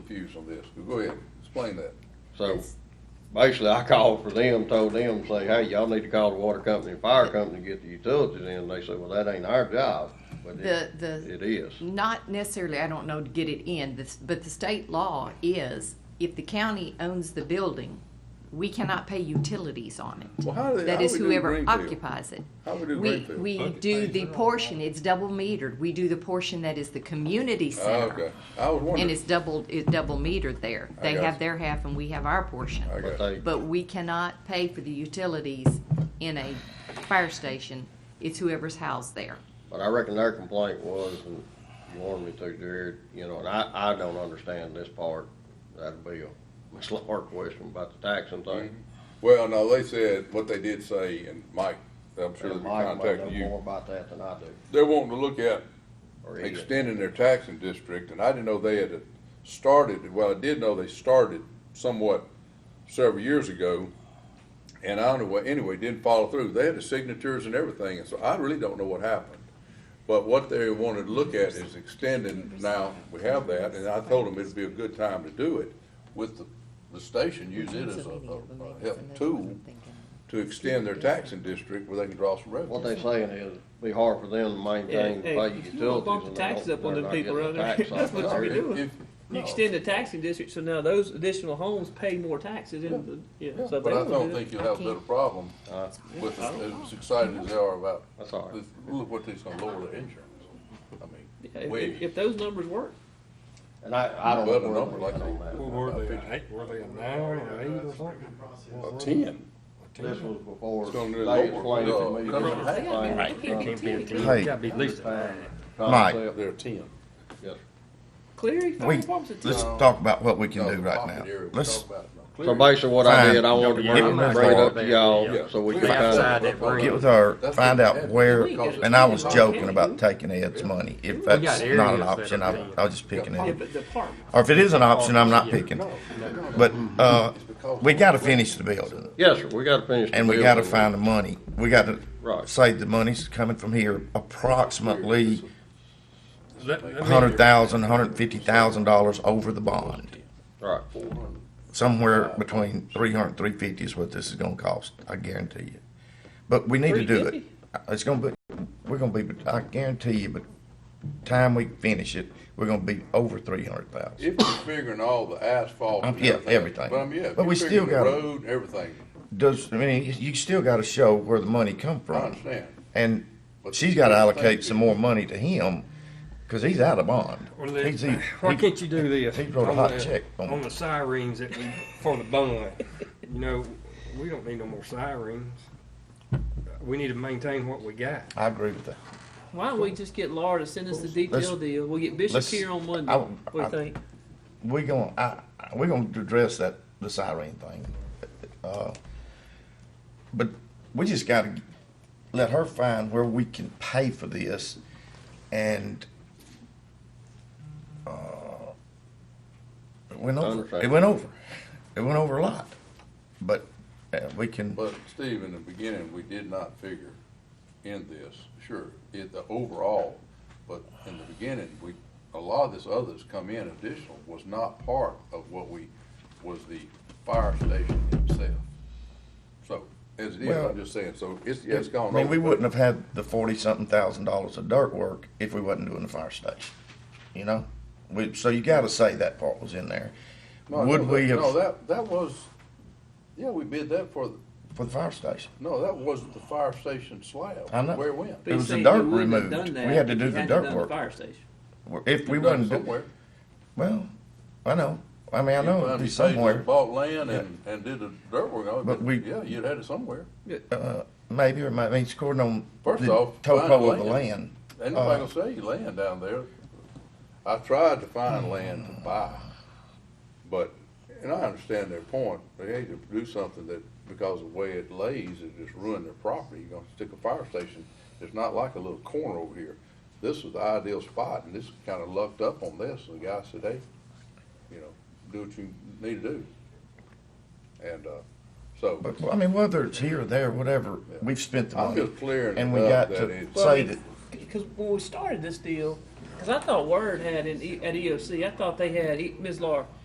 confused on this, go ahead, explain that. So basically, I called for them, told them, say, hey, y'all need to call the water company and fire company to get the utilities in. They said, well, that ain't our job, but it, The- the- it is. Not necessarily, I don't know, to get it in, this- but the state law is, if the county owns the building, we cannot pay utilities on it. Well, how do they- how That do is we do whoever Greenfield? occupies it. How we do We, Greenfield? we Bucket do things. the portion, it's double metered, we do the portion that is the community Oh, center. Okay, I was And wondering, it's doubled, it's double metered there. I They got have you. their half and we have our portion. I But got they, But we cannot pay for the utilities in a fire station. It's whoever's housed there. but I reckon their complaint was, and you warned me to, Jared, you know, and I, I don't understand this part. That'd be a Miss Laura question about the taxing thing. Mm-hmm. well, no, they said, what they did say, and Mike, I'm sure they And Mike might know contacted you. more about that than I do, They're wanting to look at or he is. extending their taxing district, and I didn't know they had started, well, I did know they started somewhat several years ago, and I don't know what, anyway, didn't follow through. They had the signatures and everything, and so I really don't know what happened. But what they wanted to look at is extending, now, we have that, and I told them it'd be a good time to do it with the, the station, use it as a, a, a help tool to extend their taxing district where they can draw some What revenue. they saying is, it'd be hard for them to maintain, Hey, hey, pay utilities. if you wanna bump the and they don't- taxes up on they're them not people getting around the there, tax off that's of what their- we If- doing. if- You no. extend the taxing district, so now those additional homes pay more taxes in the, yeah. so if But they I wanna don't do that- think you'll have a little problem Uh, with, as excited as they are about, That's all right. this- look what they're gonna lower their insurance. I mean, yeah, if- way- If, if those numbers work, And I, I don't know. But a where number we like went on that. that. What were they, eight, were they a nine or eight or something? A ten. This was before. It's gonna do they lower, explained to uh, me cover this tax. thing was Right. done Can't be a team. Hey. at Gotta be at least the a time. Mike. Concept, They're a ten. yes. Cleary, fire We, department's at let's ten. talk about what we can No, do right pocket area, now. we Let's talk about it. Now, So clearly, basically what I Fine. did, I wanted to Yeah, bring, yeah. bring it up to Yeah. y'all, so we can Yeah. kind that ring. get with her, That's find what out we had. where, We got and I was it. joking about taking Ed's money. If got that's areas not an that are option, I, big. I was just picking Yeah, it. but the park, Or if it is an option, I'm not picking. No, no, no. But, uh, It's because- we gotta finish the building. yes, sir, we gotta finish. the And we gotta building. find the money. We gotta Right. say the money's coming from here approximately Let- let me- a hundred thousand, a hundred and fifty thousand dollars over the bond. Right, somewhere between 300 and 350 is what this is going to cost. I guarantee you. But we need to do it. 350? It's going to be. We're going to be. I guarantee you. But time we finish it, we're going to be over 300 thousand. If you're figuring all the asphalt. and Um, yeah, everything. But I mean, yeah, if But we you're figuring the still gotta- road and everything, Does I mean you- you still got to show where the money come I from? understand. And But she's got to the thing allocate is- some more money to him because he's out of bond. Well, let- He's- he- Why he- can't you do this? he wrote a On hot the- check on- On the sirens that we, for the bond, you know, we don't need no more sirens. We need to maintain what we got. I agree with that. why don't we just get Laura to send us the detail Let's- deal, we'll get Bishop let's- here on I- Monday, what do you I- think? we're gonna I, I- we're gonna address that the siren thing, uh, but we just got to let her find where we can pay for this, and uh, it went over. It went over. It went over a lot, but uh, we can. But Steve, in the beginning, we did not figure in this, sure, it, the overall, but in the beginning, we, a lot of this others come in additional was not part of what we, was the fire station itself. So, as it is, Well- I'm just saying, so it's, yeah, it's gone I over. mean, we but wouldn't have had the forty something thousand dollars of dirt work if we wasn't doing the fire station, you know. We, so you got to say that part was in there. no, no, Would that- we have No, that, that was, yeah, we bid that for, the for the fire station? no, that wasn't the fire station slab. I know. Where it went. It was the Basically, dirt we wouldn't have removed. done that We had to if do we the hadn't dirt done work. Fire station. If we wasn't, do- Somewhere. well, I know. I mean, I know Sometimes it'd be you say you somewhere, Bought land and, and did the dirt work on it, But but we- yeah, you'd had it somewhere. uh, maybe, or it might mean it's according on First the off, find topo of the land. land. Ain't nobody Uh, gonna sell you land down there. I tried to find hmm. land to buy, but, and I understand their point, they hate to do something that, because of the way it lays, it just ruined their property. You're gonna stick a fire station, it's not like a little corner over here. This was the ideal spot, and this kinda lucked up on this, the guy said, hey, you know, do what you need to do. And, uh, so. But, well, I mean, whether it's here or there, whatever, we've spent the I'm money. just clearing And it we up got that to it's- say that, Because when we started this deal, because I thought Word had in, E- at EOC, I thought they had E- Ms. Laura